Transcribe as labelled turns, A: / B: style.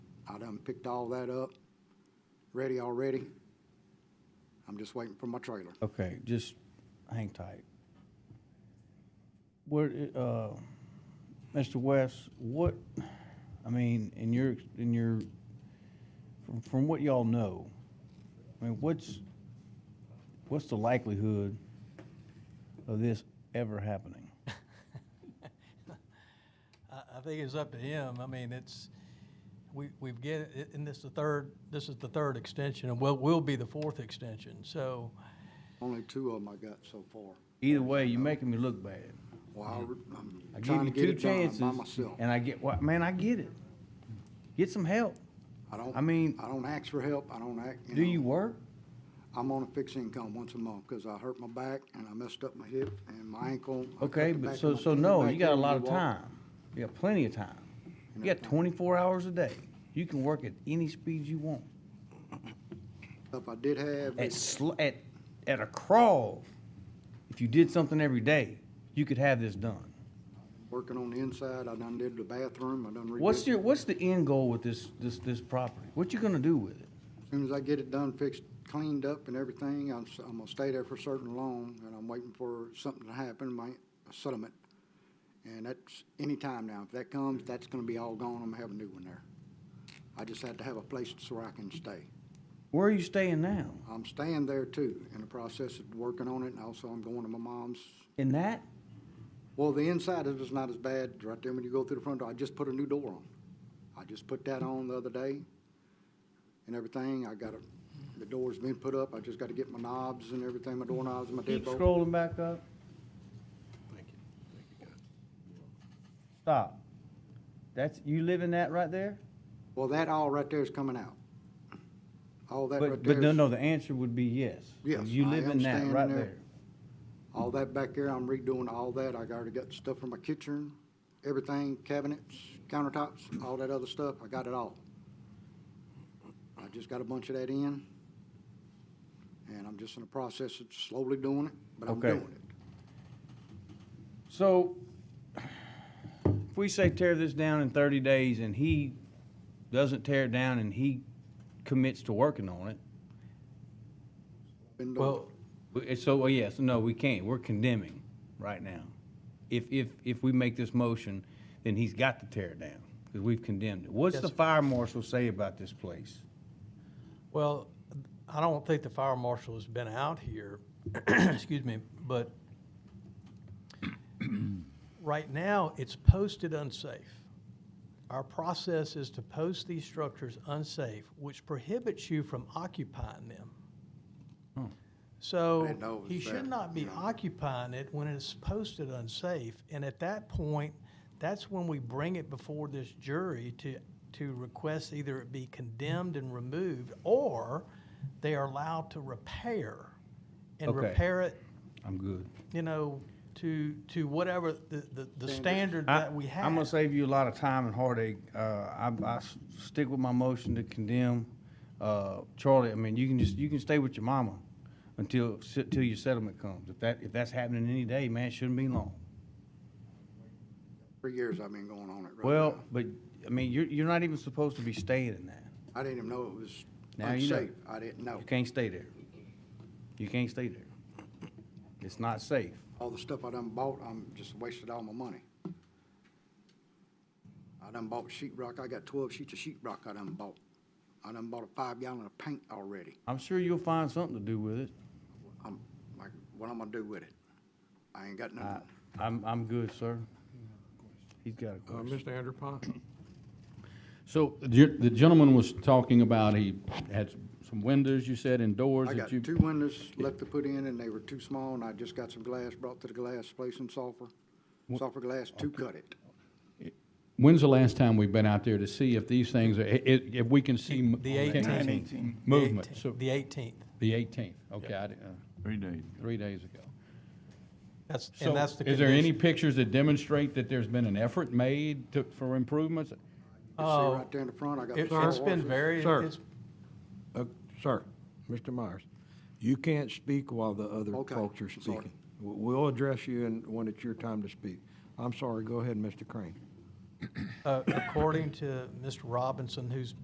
A: done picked all that up, ready already. I'm just waiting for my trailer.
B: Okay, just hang tight. Where, uh, Mr. West, what, I mean, in your, in your, from, from what y'all know, I mean, what's, what's the likelihood of this ever happening?
C: I, I think it's up to him. I mean, it's, we, we've get, and this is the third, this is the third extension, and will, will be the fourth extension, so,
A: Only two of them I got so far.
B: Either way, you're making me look bad.
A: Well, I-
B: I
A: I'm
B: give
A: trying
B: you
A: to get
B: two
A: it done
B: chances,
A: by myself.
B: and I get, what man, I get it. Get some help.
A: I don't,
B: I mean-
A: I don't ask for help. I don't act,
B: Do
A: know.
B: you work?
A: I'm on a fixed income once a month because I hurt my back and I messed up my hip and my ankle. I cut
B: Okay,
A: the
B: but
A: back
B: so,
A: of my
B: so
A: tendon
B: no,
A: back
B: you got
A: here
B: a
A: when
B: lot of
A: walk.
B: time. You got plenty of time. You got twenty-four hours a day. You can work at any speed you want.
A: Stuff I did have,
B: At sl- at, at a crawl, if you did something every day, you could have this done.
A: working on the inside, I done did the bathroom, I done redid.
B: What's your, what's the end goal with this, this, this property? What you gonna do with it?
A: As soon as I get it done, fixed, cleaned up and everything, I'm, s- I'm gonna stay there for certain long and I'm waiting for something to happen, my settlement. And that's any time now. If that comes, that's gonna be all gone. I'm gonna have a new one there. I just had to have a place so I can stay.
B: Where are you staying now?
A: I'm staying there too, in the process of working on it, and also I'm going to my mom's.
B: In that?
A: Well, the inside is just not as bad, right there when you go through the front door, I just put a new door on. I just put that on the other day and everything, I got a, the door's been put up, I just gotta get my knobs and everything, my door knobs and my
B: Keep
A: deadbolt.
B: scrolling back up. Stop. That's, you live in that right there?
A: Well, that all right there is coming out. All that right
B: But, but
A: there
B: no,
A: is,
B: no, the answer would be yes.
A: Yes,
B: You
A: I
B: live in
A: am
B: that
A: staying
B: right
A: there.
B: there.
A: all that back there, I'm redoing all that, I already got stuff for my kitchen, everything, cabinets, countertops, all that other stuff, I got it all. I just got a bunch of that in, and I'm just in the process of slowly doing it, but I'm
B: Okay.
A: doing it.
B: So, if we say tear this down in thirty days and he doesn't tear it down and he commits to working on it,
A: Been doing
C: well,
B: we- it's so, well, yes, no, we can't, we're condemning right now. If, if, if we make this motion, then he's got to tear it down, because we've condemned it. What's
C: Yes,
B: the
C: sir.
B: fire marshal say about this place?
C: well, I don't think the fire marshal has been out here, excuse me, but right now, it's posted unsafe. Our process is to post these structures unsafe, which prohibits you from occupying them.
A: I
C: So
A: didn't know it
C: he
A: was
C: should
A: that,
C: not be
A: you know.
C: occupying it when it's posted unsafe. And at that point, that's when we bring it before this jury to, to request either it be condemned and removed, or they are allowed to repair and
B: Okay.
C: repair it,
B: I'm good.
C: you know, to, to whatever the, the, the standard
B: I-
C: that we have.
B: I'm gonna save you a lot of time and heartache. Uh, I, I s- stick with my motion to condemn. Uh, Charlie, I mean, you can just, you can stay with your mama until, till your settlement comes. If that, if that's happening any day, man, it shouldn't be long.
A: Three years I've been going on it right
B: Well,
A: now.
B: but, I mean, you're, you're not even supposed to be staying in that.
A: I didn't even know it was
B: Now you know.
A: unsafe. I didn't know.
B: You can't stay there. You can't stay there. It's not safe.
A: All the stuff I done bought, I'm just wasted all my money. I done bought sheet rock. I got twelve sheets of sheet rock I done bought. I done bought a five gallon of paint already.
B: I'm sure you'll find something to do with it.
A: I'm like, what I'm gonna do with it? I ain't got
B: I,
A: nothing.
B: I'm, I'm good, sir. He's got a
D: Uh,
B: question.
D: Mr. Andrew Pond?
E: So the gen- the gentleman was talking about he had s- some windows, you said, and doors
A: I got
E: that you.
A: two windows left to put in and they were too small and I just got some glass brought to the glass place in sulfur. Sulfur glass to cut it.
E: When's the last time we've been out there to see if these things are, i- i- if we can see? m-
C: The 18th. The
E: Movement,
C: 18th.
E: so,
C: The 18th.
E: the eighteenth, okay, I, didn't, uh,
F: Three days.
E: three days ago.
C: That's,
E: So
C: and that's the
E: Is there any
C: condition.
E: pictures that demonstrate that there's been an effort made to, for improvements?
A: You see right there in the front, I got.
C: Oh. Uh, It-
A: four
C: It's been
A: horses.
C: very,
D: Sir.
C: it's,
D: Uh, Sir, Mr. Myers, you can't speak while the other
A: Okay,
D: folks are
A: I'm sorry.
D: speaking. W- We'll address you and when it's your time to speak. I'm sorry, go ahead, Mr. Crane.
C: uh, according to Mr. Robinson, who's